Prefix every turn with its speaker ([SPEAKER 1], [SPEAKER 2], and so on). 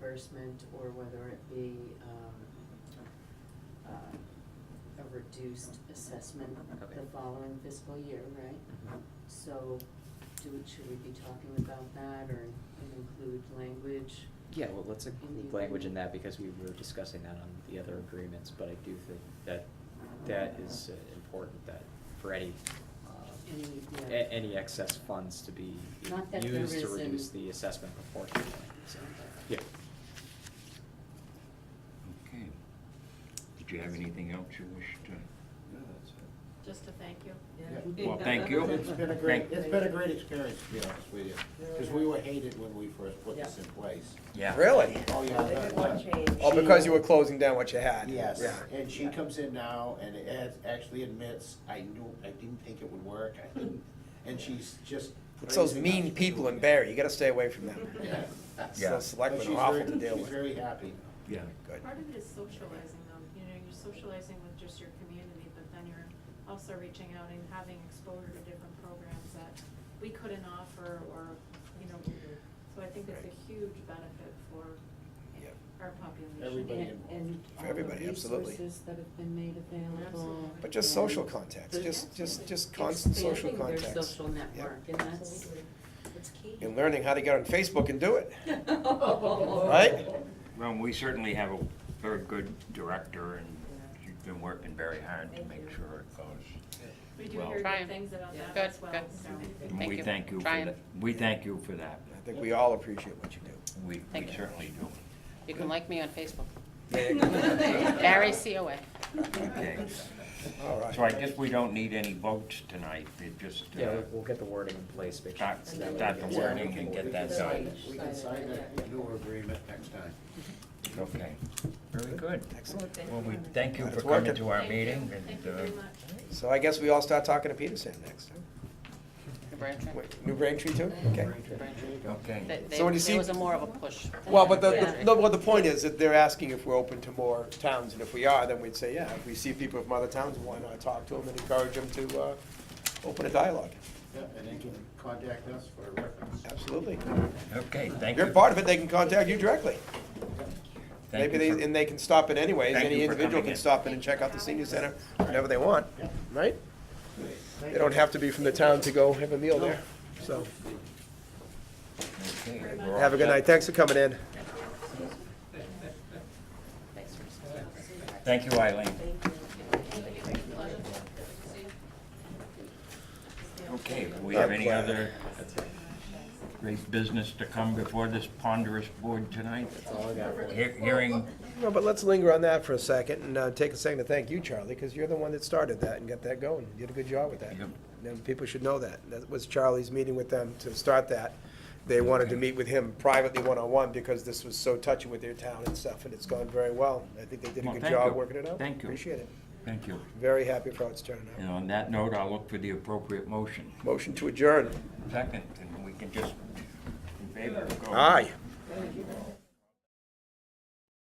[SPEAKER 1] reimbursement or whether it be, um, uh, a reduced assessment
[SPEAKER 2] Okay.
[SPEAKER 1] the following fiscal year, right?
[SPEAKER 2] Mhm.
[SPEAKER 1] So, do, should we be talking about that or include language?
[SPEAKER 2] Yeah, well, let's
[SPEAKER 1] In
[SPEAKER 2] include
[SPEAKER 1] the
[SPEAKER 2] language in
[SPEAKER 1] agreement.
[SPEAKER 2] that because we were discussing that on the other agreements, but I do think that that is uh, important that for any, um,
[SPEAKER 1] Any,
[SPEAKER 2] a-
[SPEAKER 1] yeah.
[SPEAKER 2] any excess funds to be
[SPEAKER 1] Not that there
[SPEAKER 2] used to
[SPEAKER 1] isn't-
[SPEAKER 2] reduce the assessment proportionally, so, yeah.
[SPEAKER 3] Okay. Did you have anything else you wish to?
[SPEAKER 4] Yeah, that's it.
[SPEAKER 5] Just to thank you.
[SPEAKER 4] Yeah.
[SPEAKER 3] Well, thank you.
[SPEAKER 4] It's been a great,
[SPEAKER 3] Thank-
[SPEAKER 4] it's been a great experience, to be honest with you, because we were hated when we first put this in place.
[SPEAKER 3] Yeah.
[SPEAKER 6] Really?
[SPEAKER 4] Oh, yeah.
[SPEAKER 7] They
[SPEAKER 4] that-
[SPEAKER 7] did one
[SPEAKER 4] that-
[SPEAKER 7] change.
[SPEAKER 6] Oh, because you were closing down what you had?
[SPEAKER 4] Yes,
[SPEAKER 6] Yeah.
[SPEAKER 4] and she comes in now and ad- actually admits, I knew, I didn't think it would work, I didn't, and she's just.
[SPEAKER 6] It's those
[SPEAKER 4] praising us
[SPEAKER 6] mean
[SPEAKER 4] for
[SPEAKER 6] people
[SPEAKER 4] doing
[SPEAKER 6] in
[SPEAKER 4] it.
[SPEAKER 6] Barry, you gotta stay away from them.
[SPEAKER 4] Yeah.
[SPEAKER 6] It's
[SPEAKER 3] Yeah.
[SPEAKER 6] Those
[SPEAKER 4] But
[SPEAKER 6] selectmen
[SPEAKER 4] she's
[SPEAKER 6] are awful
[SPEAKER 4] very-
[SPEAKER 6] to deal with.
[SPEAKER 4] She's very happy.
[SPEAKER 3] Yeah.
[SPEAKER 6] Good.
[SPEAKER 5] Part of it is socializing though, you know, you're socializing with just your community, but then you're also reaching out and having exposure to different programs that we couldn't offer or, you know, so I think it's a huge benefit for
[SPEAKER 6] Yeah.
[SPEAKER 5] our population.
[SPEAKER 4] Everybody
[SPEAKER 1] And, and
[SPEAKER 6] For
[SPEAKER 1] all the
[SPEAKER 6] everybody, absolutely.
[SPEAKER 1] resources that have been made available.
[SPEAKER 5] Absolutely.
[SPEAKER 6] But just
[SPEAKER 1] and
[SPEAKER 6] social contacts,
[SPEAKER 1] the-
[SPEAKER 6] just, just, just constant social
[SPEAKER 1] expanding
[SPEAKER 6] contacts.
[SPEAKER 1] Their social
[SPEAKER 6] Yep.
[SPEAKER 1] network, and that's,
[SPEAKER 7] It's key.
[SPEAKER 6] And learning how to get on Facebook and do it.
[SPEAKER 1] Right?
[SPEAKER 3] Well, we certainly have a very good director and she's been working very hard to make sure it goes.
[SPEAKER 5] We do
[SPEAKER 3] Well-
[SPEAKER 5] hear
[SPEAKER 8] Trying.
[SPEAKER 5] good things about
[SPEAKER 1] Yeah.
[SPEAKER 5] that
[SPEAKER 8] Good,
[SPEAKER 5] as well,
[SPEAKER 8] good.
[SPEAKER 5] so.
[SPEAKER 3] And
[SPEAKER 8] Thank
[SPEAKER 3] we
[SPEAKER 8] you.
[SPEAKER 3] thank you for
[SPEAKER 8] Trying.
[SPEAKER 3] that. We thank you for that.
[SPEAKER 6] I think we all appreciate what you do.
[SPEAKER 3] We, we
[SPEAKER 8] Thank you.
[SPEAKER 3] certainly do.
[SPEAKER 8] You can like me on Facebook.
[SPEAKER 6] Yeah, yeah.
[SPEAKER 8] Barry COA.
[SPEAKER 3] Okay.
[SPEAKER 6] All right.
[SPEAKER 3] So I guess we don't need any votes tonight, it just. uh,
[SPEAKER 2] Yeah, we'll- we'll get the wording in place, make sure.
[SPEAKER 3] Start-
[SPEAKER 2] so that way
[SPEAKER 3] start
[SPEAKER 2] it
[SPEAKER 3] the
[SPEAKER 2] gets-
[SPEAKER 4] Yeah, we
[SPEAKER 3] wording
[SPEAKER 4] can-
[SPEAKER 3] and get
[SPEAKER 4] we
[SPEAKER 3] that done.
[SPEAKER 4] can sign- We can sign that newer agreement next time.
[SPEAKER 3] Okay, very good.
[SPEAKER 6] Excellent.
[SPEAKER 3] Well, we thank you
[SPEAKER 6] Glad
[SPEAKER 3] for
[SPEAKER 6] it's
[SPEAKER 3] coming
[SPEAKER 6] working.
[SPEAKER 3] to our
[SPEAKER 5] Thank you.
[SPEAKER 3] meeting and.
[SPEAKER 5] Thank you
[SPEAKER 3] uh,
[SPEAKER 5] very much.
[SPEAKER 6] So I guess we all start talking to Peter Sam next.
[SPEAKER 8] New Braintree.
[SPEAKER 6] Wait, New Braintree too? Okay.
[SPEAKER 3] Okay,
[SPEAKER 8] They- they-
[SPEAKER 6] So when you see-
[SPEAKER 8] There was a more of a push.
[SPEAKER 6] Well, but the,
[SPEAKER 8] Yeah.
[SPEAKER 6] the- no, well, the point is that they're asking if we're open to more towns, and if we are, then we'd say, yeah, if we see people from other towns, why not talk to them and encourage them to, uh, open a dialogue?
[SPEAKER 4] Yeah, and they can contact us for reference.
[SPEAKER 6] Absolutely.
[SPEAKER 3] okay,
[SPEAKER 6] If
[SPEAKER 3] thank you.
[SPEAKER 6] you're part of it, they can contact you directly.
[SPEAKER 3] Thank
[SPEAKER 6] Maybe
[SPEAKER 3] you for-
[SPEAKER 6] they, and they can stop in anyways,
[SPEAKER 3] Thank
[SPEAKER 6] any
[SPEAKER 3] you for
[SPEAKER 6] individual
[SPEAKER 3] coming
[SPEAKER 6] can
[SPEAKER 3] in.
[SPEAKER 6] stop in and check out the senior center whenever they want, right? They don't have to be from the town to go have a meal there, so.
[SPEAKER 3] okay, we're all
[SPEAKER 6] Have a good
[SPEAKER 3] set.
[SPEAKER 6] night, thanks for coming in.
[SPEAKER 8] Thanks for-
[SPEAKER 3] Thank you, Eileen. Okay, do we have any other great business to come before this ponderous board tonight? He- Hearing,
[SPEAKER 6] No, but let's linger on that for a second and uh, take a second to thank you, Charlie, because you're the one that started that and got that going. You did a good job with that.
[SPEAKER 3] Yep.
[SPEAKER 6] And people should know that. That was Charlie's meeting with them to start that. They wanted to meet with him privately, one-on-one, because this was so touchy with their town and stuff, and it's gone very well. I think they did a
[SPEAKER 3] Well,
[SPEAKER 6] good
[SPEAKER 3] thank you.
[SPEAKER 6] job working it out.
[SPEAKER 3] Thank you.
[SPEAKER 6] Appreciate it.
[SPEAKER 3] thank you.
[SPEAKER 6] Very happy for how it's turning
[SPEAKER 3] And
[SPEAKER 6] out.
[SPEAKER 3] on that note, I'll look for the appropriate motion.
[SPEAKER 6] Motion to adjourn.
[SPEAKER 3] Second, and we can just, in favor, go.
[SPEAKER 6] Aye.